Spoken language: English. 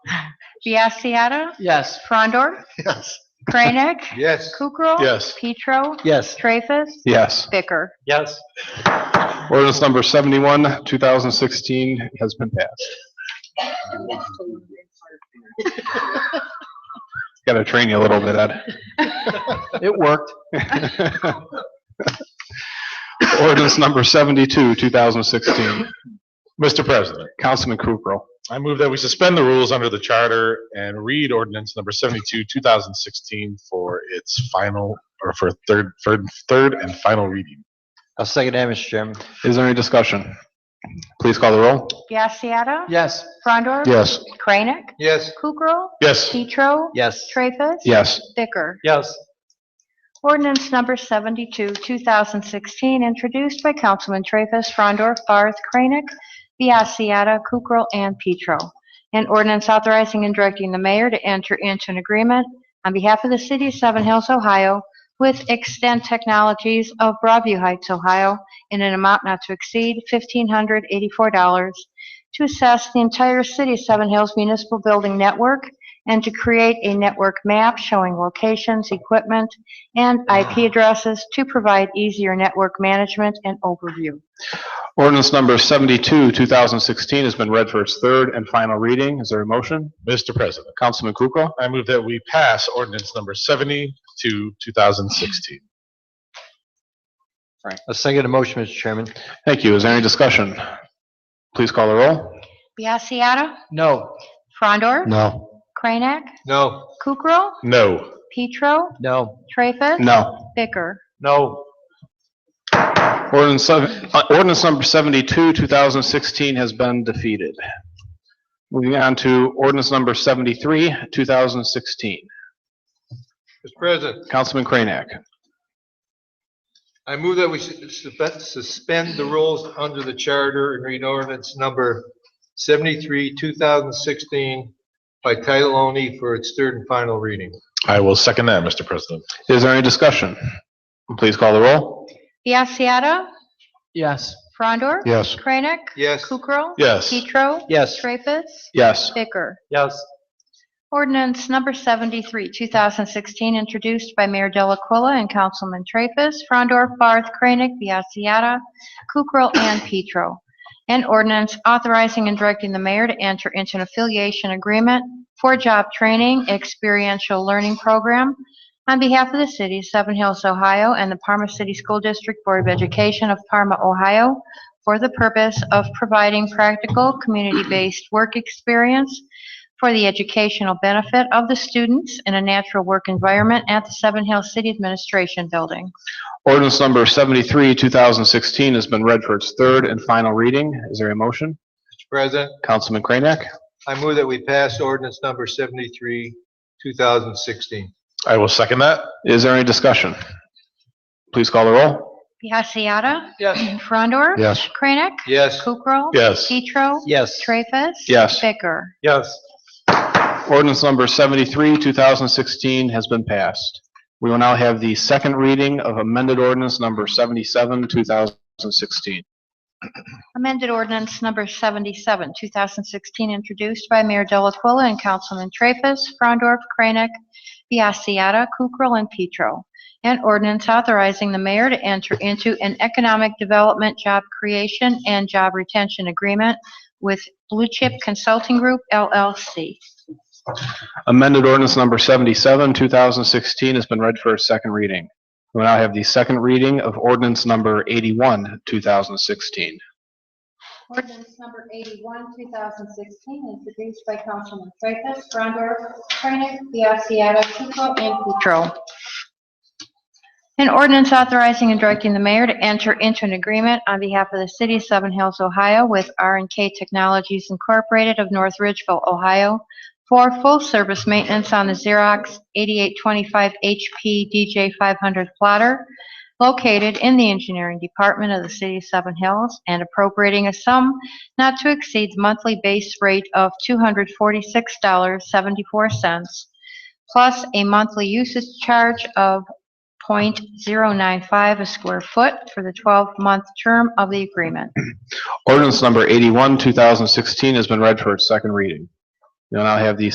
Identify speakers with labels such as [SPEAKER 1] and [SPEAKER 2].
[SPEAKER 1] Biassiata,
[SPEAKER 2] Yes.
[SPEAKER 1] Frondor,
[SPEAKER 3] Yes.
[SPEAKER 1] Kranek,
[SPEAKER 3] Yes.
[SPEAKER 1] Kukrow.
[SPEAKER 3] Yes.
[SPEAKER 1] Petro,
[SPEAKER 2] Yes.
[SPEAKER 1] Treffus,
[SPEAKER 4] Yes.
[SPEAKER 1] Bicker.
[SPEAKER 2] Yes.
[SPEAKER 4] Ordinance number 71, 2016 has been passed. Got to train you a little bit,
[SPEAKER 2] It worked.
[SPEAKER 4] Ed. Ordinance number 72, 2016.
[SPEAKER 3] Mr. President,
[SPEAKER 4] Councilman Kukrow.
[SPEAKER 3] I move that we suspend the rules under the charter and read ordinance number 72, 2016 for its final, or for third, third, third and final reading.
[SPEAKER 2] I'll second that, Mr. Chairman.
[SPEAKER 4] Is there any discussion? Please call the roll.
[SPEAKER 1] Biassiata,
[SPEAKER 2] Yes.
[SPEAKER 1] Frondor.
[SPEAKER 4] Yes.
[SPEAKER 1] Kranek,
[SPEAKER 2] Yes.
[SPEAKER 1] Kukrow,
[SPEAKER 3] Yes.
[SPEAKER 1] Petro,
[SPEAKER 2] Yes.
[SPEAKER 1] Treffus.
[SPEAKER 4] Yes.
[SPEAKER 1] Bicker.
[SPEAKER 2] Yes.
[SPEAKER 1] Ordinance number 72, 2016, introduced by Councilman Traffus, Frondor, Barth, Kranek, Biassiata, Kukrow, and Petro. An ordinance authorizing and directing the mayor to enter into an agreement on behalf of the city of Seven Hills, Ohio, with Extend Technologies of Broadview Heights, Ohio, in an amount not to exceed $1,584 to assess the entire city of Seven Hills municipal building network and to create a network map showing locations, equipment, and IP addresses to provide easier network management and overview.
[SPEAKER 4] Ordinance number 72, 2016 has been read for its third and final reading. Is there a motion?
[SPEAKER 3] Mr. President,
[SPEAKER 4] Councilman Kukrow.
[SPEAKER 3] I move that we pass ordinance number 72, 2016.
[SPEAKER 2] I'll second the motion, Mr. Chairman.
[SPEAKER 4] Thank you. Is there any discussion? Please call the roll.
[SPEAKER 1] Biassiata,
[SPEAKER 2] No.
[SPEAKER 1] Frondor,
[SPEAKER 4] No.
[SPEAKER 1] Kranek,
[SPEAKER 2] No.
[SPEAKER 1] Kukrow,
[SPEAKER 3] No.
[SPEAKER 1] Petro,
[SPEAKER 2] No.
[SPEAKER 1] Traffus,
[SPEAKER 4] No.
[SPEAKER 1] Bicker.
[SPEAKER 2] No.
[SPEAKER 4] Ordinance, sev- uh, ordinance number 72, 2016 has been defeated. Moving on to ordinance number 73, 2016.
[SPEAKER 5] Mr. President,
[SPEAKER 4] Councilman Kranek.
[SPEAKER 5] I move that we sus- suspend the rules under the charter and read ordinance number 73, 2016 by title only for its third and final reading.
[SPEAKER 3] I will second that, Mr. President.
[SPEAKER 4] Is there any discussion? Please call the roll.
[SPEAKER 1] Biassiata,
[SPEAKER 2] Yes.
[SPEAKER 1] Frondor,
[SPEAKER 4] Yes.
[SPEAKER 1] Kranek,
[SPEAKER 5] Yes,
[SPEAKER 1] Kukrow,
[SPEAKER 3] Yes.
[SPEAKER 1] Petro,
[SPEAKER 2] Yes.
[SPEAKER 1] Traffus,
[SPEAKER 4] Yes.
[SPEAKER 1] Bicker.
[SPEAKER 2] Yes.
[SPEAKER 1] Ordinance number 73, 2016, introduced by Mayor Delacuilla and Councilman Traffus, Frondor, Barth, Kranek, Biassiata, Kukrow, and Petro. An ordinance authorizing and directing the mayor to enter into an affiliation agreement for job training experiential learning program on behalf of the city of Seven Hills, Ohio, and the Parma City School District Board of Education of Parma, Ohio, for the purpose of providing practical, community-based work experience for the educational benefit of the students in a natural work environment at the Seven Hills City Administration Building.
[SPEAKER 4] Ordinance number 73, 2016 has been read for its third and final reading. Is there a motion?
[SPEAKER 5] Mr. President,
[SPEAKER 4] Councilman Kranek.
[SPEAKER 5] I move that we pass ordinance number 73, 2016.
[SPEAKER 3] I will second that.
[SPEAKER 4] Is there any discussion? Please call the roll.
[SPEAKER 1] Biassiata.
[SPEAKER 2] Yes.
[SPEAKER 1] Frondor.
[SPEAKER 4] Yes.
[SPEAKER 1] Kranek.
[SPEAKER 5] Yes,
[SPEAKER 1] Kukrow.
[SPEAKER 3] Yes.
[SPEAKER 1] Petro.
[SPEAKER 2] Yes.
[SPEAKER 1] Treffus.
[SPEAKER 4] Yes.
[SPEAKER 1] Bicker.
[SPEAKER 2] Yes.
[SPEAKER 4] Ordinance number 73, 2016 has been passed. We will now have the second reading of amended ordinance number 77, 2016.
[SPEAKER 1] Amended ordinance number 77, 2016, introduced by Mayor Delacuilla and Councilman Traffus, Frondorf, Kranek, Biassiata, Kukrow, and Petro. An ordinance authorizing the mayor to enter into an economic development, job creation, and job retention agreement with Blue Chip Consulting Group LLC.
[SPEAKER 4] Amended ordinance number 77, 2016 has been read for its second reading. We will now have the second reading of ordinance number 81, 2016.
[SPEAKER 1] Ordinance number 81, 2016, introduced by Councilman Traffus, Frondor, Kranek, Biassiata, Kukrow, and Petro. An ordinance authorizing and directing the mayor to enter into an agreement on behalf of the city of Seven Hills, Ohio with r and K Technologies Incorporated of North Ridgeville, Ohio for full-service maintenance on the Xerox 8825 HP DJ500 plotter located in the engineering department of the city of Seven Hills and appropriating a sum not to exceed the monthly base rate of $246.74 plus a monthly usage charge of .095 a square foot for the 12-month term of the agreement.
[SPEAKER 4] Ordinance number 81, 2016 has been read for its second reading. We will now have the